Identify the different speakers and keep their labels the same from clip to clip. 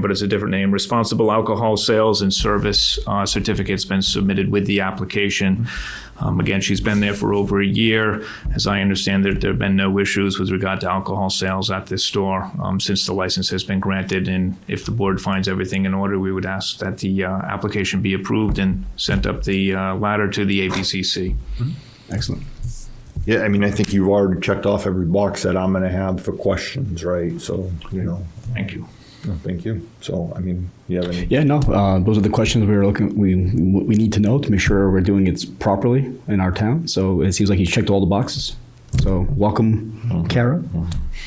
Speaker 1: but it's a different name. Responsible Alcohol Sales and Service uh, Certificate's been submitted with the application. Um, Again, she's been there for over a year. As I understand, there there have been no issues with regard to alcohol sales at this store um, since the license has been granted. And if the board finds everything in order, we would ask that the uh, application be approved and sent up the uh, ladder to the ABCC.
Speaker 2: Excellent. Yeah, I mean, I think you've already checked off every box that I'm going to have for questions, right? So, you know,
Speaker 1: Thank you.
Speaker 2: thank you. So, I mean, you have any?
Speaker 3: Yeah, no, uh, those are the questions we were looking, we, we we need to know to make sure we're doing it properly in our town. So it seems like he's checked all the boxes. So
Speaker 2: Mm-hmm.
Speaker 3: welcome, Kara.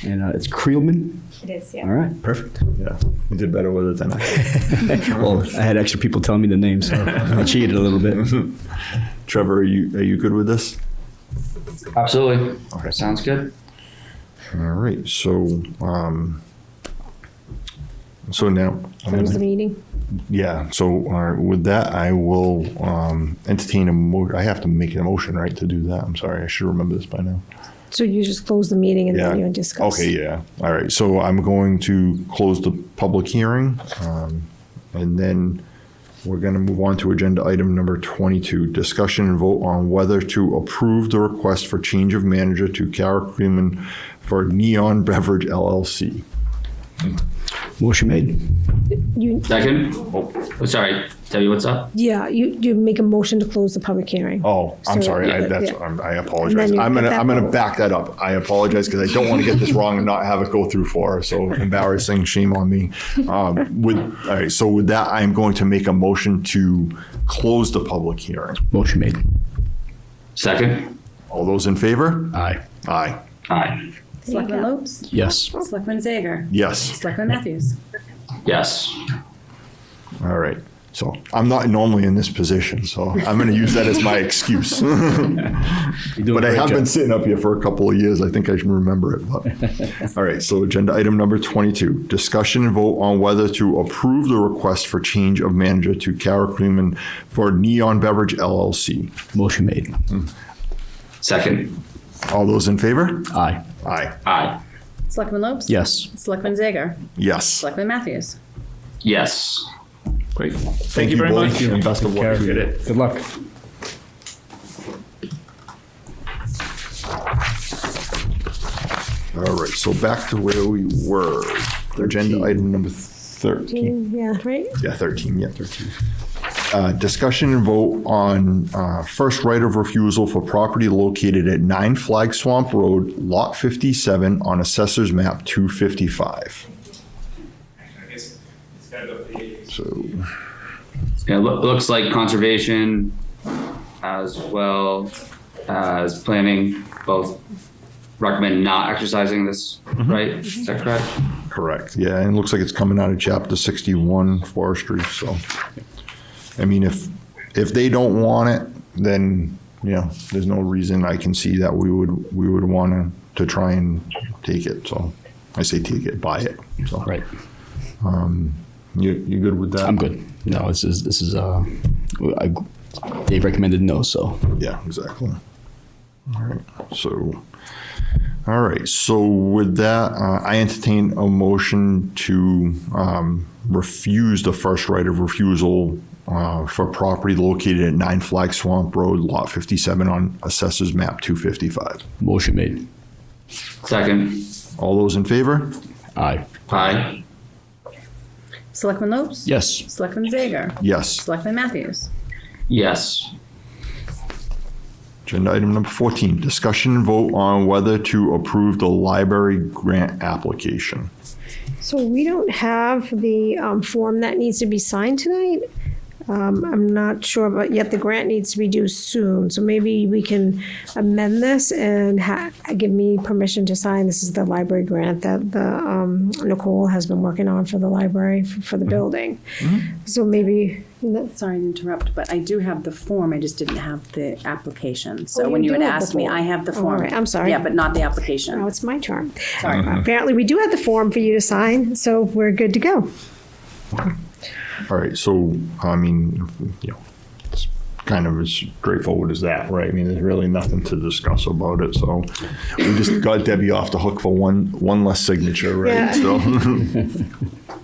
Speaker 3: And uh, it's Creelman.
Speaker 4: It is,
Speaker 3: All
Speaker 4: yeah.
Speaker 3: right, perfect.
Speaker 2: Yeah, you did better with it than I. did.
Speaker 3: Well, I had extra people telling me the name, so I cheated a little bit.
Speaker 2: Trevor, are you, are you good with this?
Speaker 5: Absolutely. Sounds good.
Speaker 2: All right, so, um, so now, I'm
Speaker 4: Close the
Speaker 2: gonna-
Speaker 4: meeting.
Speaker 2: yeah, so all right, with that, I will um, entertain a mo, I have to make an emotion, right, to do that? I'm sorry, I should remember this by now.
Speaker 4: So you just close the meeting and
Speaker 2: Yeah.
Speaker 4: then you discuss.
Speaker 2: Okay, yeah. All right, so I'm going to close the public hearing, um, and then we're gonna move on to agenda item number twenty-two, discussion and vote on whether to approve the request for change of manager to Kara Creeman for Neon Beverage LLC.
Speaker 3: Motion made.
Speaker 4: You,
Speaker 5: Second. Oh, sorry. Debbie, what's up?
Speaker 4: yeah, you, you make a motion to close the public hearing.
Speaker 2: Oh, I'm
Speaker 4: So,
Speaker 2: sorry, I,
Speaker 4: yeah,
Speaker 2: that's,
Speaker 4: yeah.
Speaker 2: I'm- I
Speaker 4: And
Speaker 2: apologize.
Speaker 4: then you
Speaker 2: I'm gonna,
Speaker 4: get that
Speaker 2: I'm gonna
Speaker 4: vote.
Speaker 2: back that up. I apologize, because I don't want to get this wrong and not have it go through for us, so embarrassing, shame on me. Um, With, all right, so with that, I am going to make a motion to close the public hearing.
Speaker 3: Motion made.
Speaker 5: Second.
Speaker 2: All those in favor?
Speaker 3: Aye.
Speaker 2: Aye,
Speaker 5: Aye.
Speaker 6: Selectman Lopes,
Speaker 3: Yes.
Speaker 6: Selectman Zager,
Speaker 2: yes.
Speaker 6: Selectman Matthews.
Speaker 5: Yes.
Speaker 2: All right. So I'm not normally in this position, so I'm going to use that as my excuse. but I have been sitting up here for a couple of years. I think I can remember it. But. All right. So agenda item number 22: discussion and vote on whether to approve the request for change of manager to Kara Creeman for Neon Beverage LLC.
Speaker 3: Motion made.
Speaker 2: Mm.
Speaker 5: Second.
Speaker 2: All those in favor?
Speaker 3: Aye.
Speaker 2: Aye.
Speaker 5: Aye.
Speaker 6: Selectman Lopes.
Speaker 3: Yes.
Speaker 6: Selectman Zager,
Speaker 2: Yes.
Speaker 6: Selectman Matthews.
Speaker 5: Yes.
Speaker 1: Great.
Speaker 2: Thank
Speaker 1: you very
Speaker 2: both,
Speaker 1: much.
Speaker 2: and best of luck.
Speaker 1: Appreciate it.
Speaker 3: Good luck.
Speaker 2: All right. So back to where we were. Agenda item number 13.
Speaker 4: Yeah, right?
Speaker 2: Yeah, 13, yeah, 13. Uh, Discussion and vote on uh, first right of refusal for property located at 9 Flag Swamp Road, Lot 57, on Assessor's Map 255. So,
Speaker 5: Yeah, loo- looks like conservation as well as planning both recommend not exercising this, right? Is that correct?
Speaker 2: correct, yeah, and it looks like it's coming out of Chapter 61 Forestry, so. I mean, if, if they don't want it, then, you know, there's no reason I can see that we would, we would want to try and take it, so. I say take it, buy it, so.
Speaker 3: Right.
Speaker 2: You, you good with that?
Speaker 3: I'm good. No, this is, this is, uh, I, they recommended no, so.
Speaker 2: Yeah, exactly. All right, so, all right, so with that, uh, I entertain a motion to, um, refuse the first right of refusal, uh, for property located at Nine Flag Swamp Road, Lot fifty-seven on Assessors Map two fifty-five.
Speaker 3: Motion made.
Speaker 5: Second.
Speaker 2: All those in favor?
Speaker 3: Aye.
Speaker 5: Aye.
Speaker 6: Selectman Lopes.
Speaker 3: Yes.
Speaker 6: Selectman Zager,
Speaker 2: Yes.
Speaker 6: Selectman Matthews.
Speaker 5: Yes.
Speaker 2: Agenda item number fourteen, discussion and vote on whether to approve the library grant application.
Speaker 4: So we don't have the um, form that needs to be signed tonight. Um, I'm not sure, but yet the grant needs to be due soon. So maybe we can amend this and ha- give me permission to sign. This is the library grant that the um, Nicole has been working on for the library for,
Speaker 2: Mm-hmm.
Speaker 4: for the building. So maybe
Speaker 6: Sorry to interrupt, but I do have the form, I just didn't have the application.
Speaker 4: Oh,
Speaker 6: So
Speaker 4: you
Speaker 6: when you
Speaker 4: do
Speaker 6: had
Speaker 4: have the
Speaker 6: asked me,
Speaker 4: form.
Speaker 6: I have the
Speaker 4: All
Speaker 6: form. Oh,
Speaker 4: right, I'm sorry.
Speaker 6: Yeah, but not the
Speaker 4: now
Speaker 6: application.
Speaker 4: Oh, it's my turn. Apparently, we do have the form for you to sign, so we're good to go.
Speaker 2: All right, so, I mean, you know, it's kind of as straightforward as that, right? I mean, there's really nothing to discuss about it, so we just got Debbie off the hook for one, one less signature,
Speaker 4: Yeah.
Speaker 2: right? So,